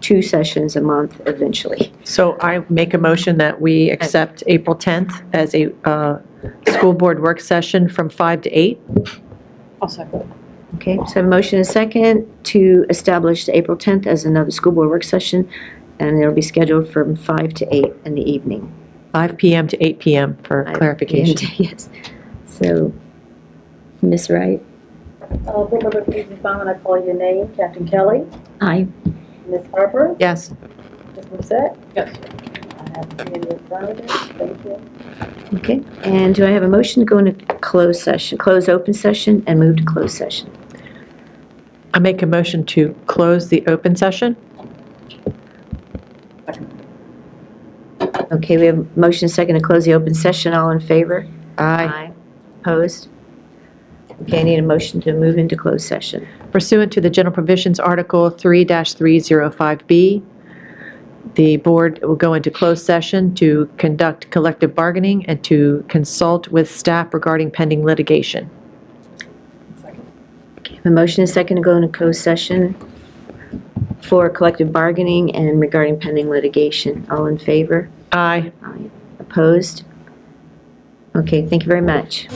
two sessions a month eventually. So I make a motion that we accept April 10th as a uh, school board work session from 5 to 8. Okay, so motion and second to establish the April 10th as another school board work session, and it'll be scheduled from 5 to 8 in the evening. 5 PM to 8 PM for clarification. And, Yes. So, Ms. Wright? Uh, Board Member Peterson Bond, I call your name. Captain Kelly, Aye. Ms. Harper, Yes, Ms. Musette. Yes. I have three in front of me. Thank you. Okay, and do I have a motion to go into closed session, close open session and move to closed session? I make a motion to close the open session. Okay, we have a motion and second to close the open session. All in favor? Aye. Opposed? Okay, I need a motion to move into closed session. Pursuant to the general provisions, Article 3-305B, the board will go into closed session to conduct collective bargaining and to consult with staff regarding pending litigation. A motion is second to go into closed session for collective bargaining and regarding pending litigation. All in favor? Aye. Aye. Opposed? Okay, thank you very much.